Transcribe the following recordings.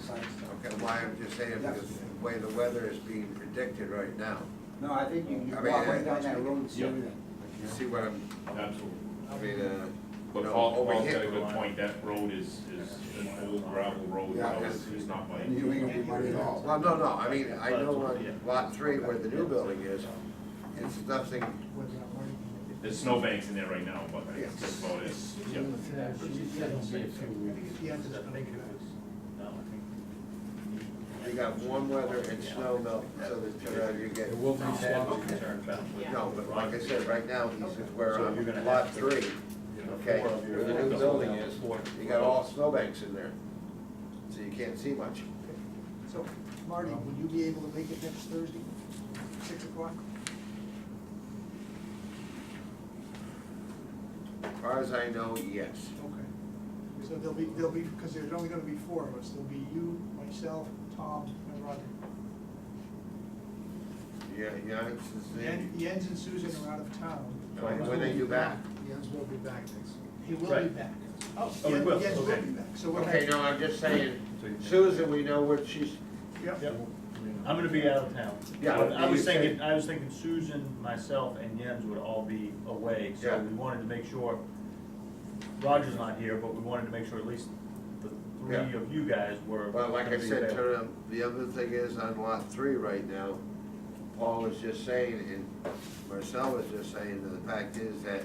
site stuff. Okay, why I'm just saying, because the way the weather is being predicted right now, No, I think you you I walk mean, right uh, down that road and see yeah. everything. you see what I'm, Absolutely. I mean, uh. But no, Paul, over Paul's here- got a good point, that road is, is an old gravel road, Yeah, so it's, it's- it's not like. And you ain't gonna be money at all. Well, no, no, I mean, I know on lot three where the new building is, it's nothing, There's snowbanks in there right now, but Yes. that's about it, yeah. you got warm weather and snow melt, so that uh, you get. It will be sloppy. No, but like I said, right now, he's, we're on uh, lot three, okay, where the new building is, you got all snowbanks in there, so you can't see much. So, Marty, would you be able to make it next Thursday, six o'clock? As far as I know, yes. Okay. So there'll be, there'll be, because there's only gonna be four of us, there'll be you, myself, Tom, and Roger. Yeah, yeah, it's the Yen- same. Jens and Susan are out of town. Like, When they do back. Jens will be back next. He will be Right. back. Oh, he Yen- will, Jens will okay. be back, so we'll Okay, have, no, I'm just saying, Susan, we know what she's, yep, I'm gonna be out of town. Yeah. But I was thinking, I was thinking Susan, myself, and Jens would all be away, so Yeah. we wanted to make sure, Roger's not here, but we wanted to make sure at least the Yeah. three of you guys were. well, like I gonna be said, available. Turner, the other thing is on lot three right now, Paul was just saying, and Marcel was just saying, that the fact is that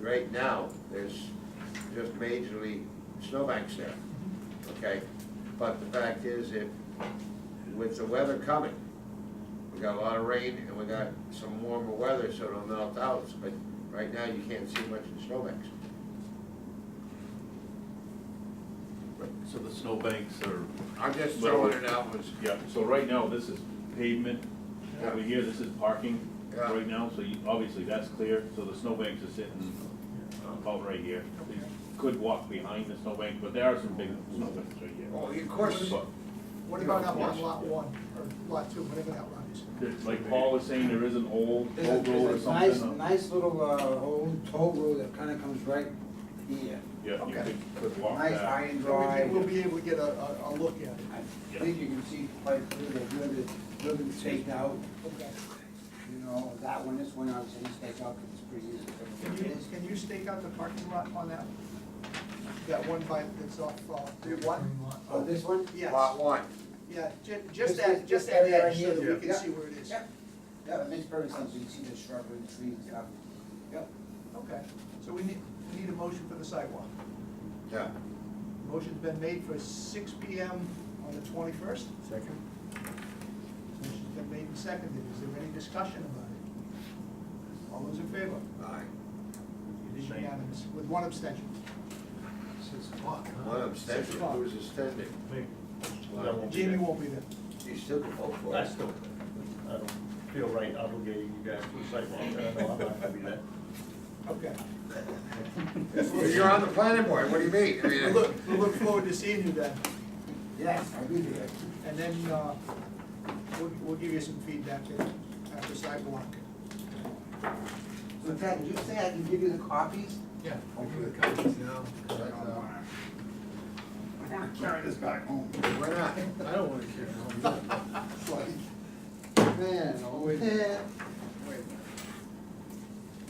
right now, there's just majorly snowbanks there, okay? But the fact is, if, with the weather coming, we got a lot of rain and we got some warmer weather, so it'll melt out, but right now, you can't see much in snowbanks. So the snowbanks are. I'm just throwing it out was, Yeah, so right now, this is pavement, Yeah. over here, this is parking Yeah. right now, so you, obviously that's clear, so the snowbanks are sitting uh, about right here. You Could walk behind the snowbank, but there are some big snowbanks right here. oh, of course, But what about up Yes. on lot one, or lot two, whatever that lot is? there's- Like Paul was saying, there is an old, There's a- old road or there's a nice, something. uh, nice little, uh, old toll road that kinda comes right here. Yeah, you okay. could, could walk Nice high that. and So dry. we- We'll be able to get a, a, a look at it. I think you can see quite clearly, the ribbon, ribbon staked out, Okay. you know, that one, this one, obviously, you stake out, 'cause it's pretty easy. Can to you, can you stake out the parking lot on that? That one by, that's off, uh, the one? Oh, this one? Yes. lot one. Yeah, ju- Just just that, this- just this that area edge, so right that here. we can Yeah. see where it is. Yeah. Yeah, it makes perfect sense, you can see the shrubbery, and trees and stuff. Yep. Okay, so we need, we need a motion for the sidewalk. Yeah. Motion's been made for six P M on the twenty-first. Second? Motion's been made and seconded, is there any discussion about it? All those in favor? Aye. It is unanimous, with one abstention. Six o'clock, One abstention, who's extending? Me. Wow. That won't be Jamie there. won't be there. You still can vote for I it. still, I don't feel right obligating you guys to a sidewalk, I know I'm not gonna be there. Okay. You're on the planning board, what do you mean? I We mean, look, we look forward to seeing you then, Yes, I'll be there. and then, uh, we'll, we'll give you some feedback after sidewalk. So Ted, did you say I can give you the copies? Yeah. I'll give the copies now, 'cause I don't uh, wanna, I wanna carry this back home. Why not? I don't wanna carry it home. It's like, Man, oh, Wait. man.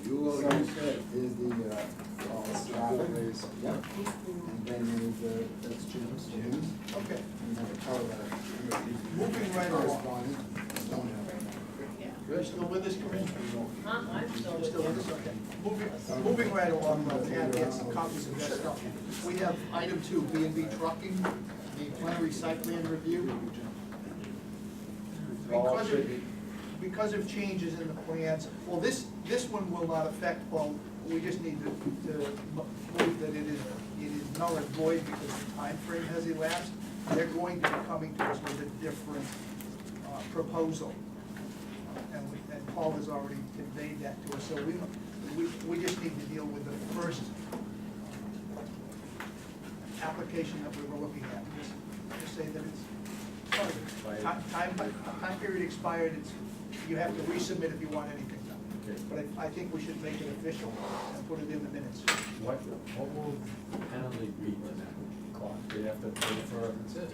You will, So, you said. There's the, uh, all the driveways. Yep. And then there's the, that's Oh, Jim's, Jim's, Okay, and then the power line. Moving right along. Correspondent, don't have. you're still with us, Corinne? Huh? I'm still You're with still you. with us, okay. Moving, moving right along, but we have had some copies of that stuff. We have item two, B and B Trucking, the plenary site plan review. All Because should of, be, because of changes in the plans, well, this, this one will not affect, well, we just need to, to mo- move that it is, it is null and void because the time frame has elapsed. They're going to be coming to us with a different, uh, proposal. And we, and Paul has already conveyed that to us, so we, we, we just need to deal with the first application that we were looking at, just, just say that it's, sorry, ti- time, time period expired, it's, you have to resubmit if you want anything done. Okay. But I, I think we should make it official and put it in the minutes. What, what will the penalty be to that clock? Do you have to pay for it?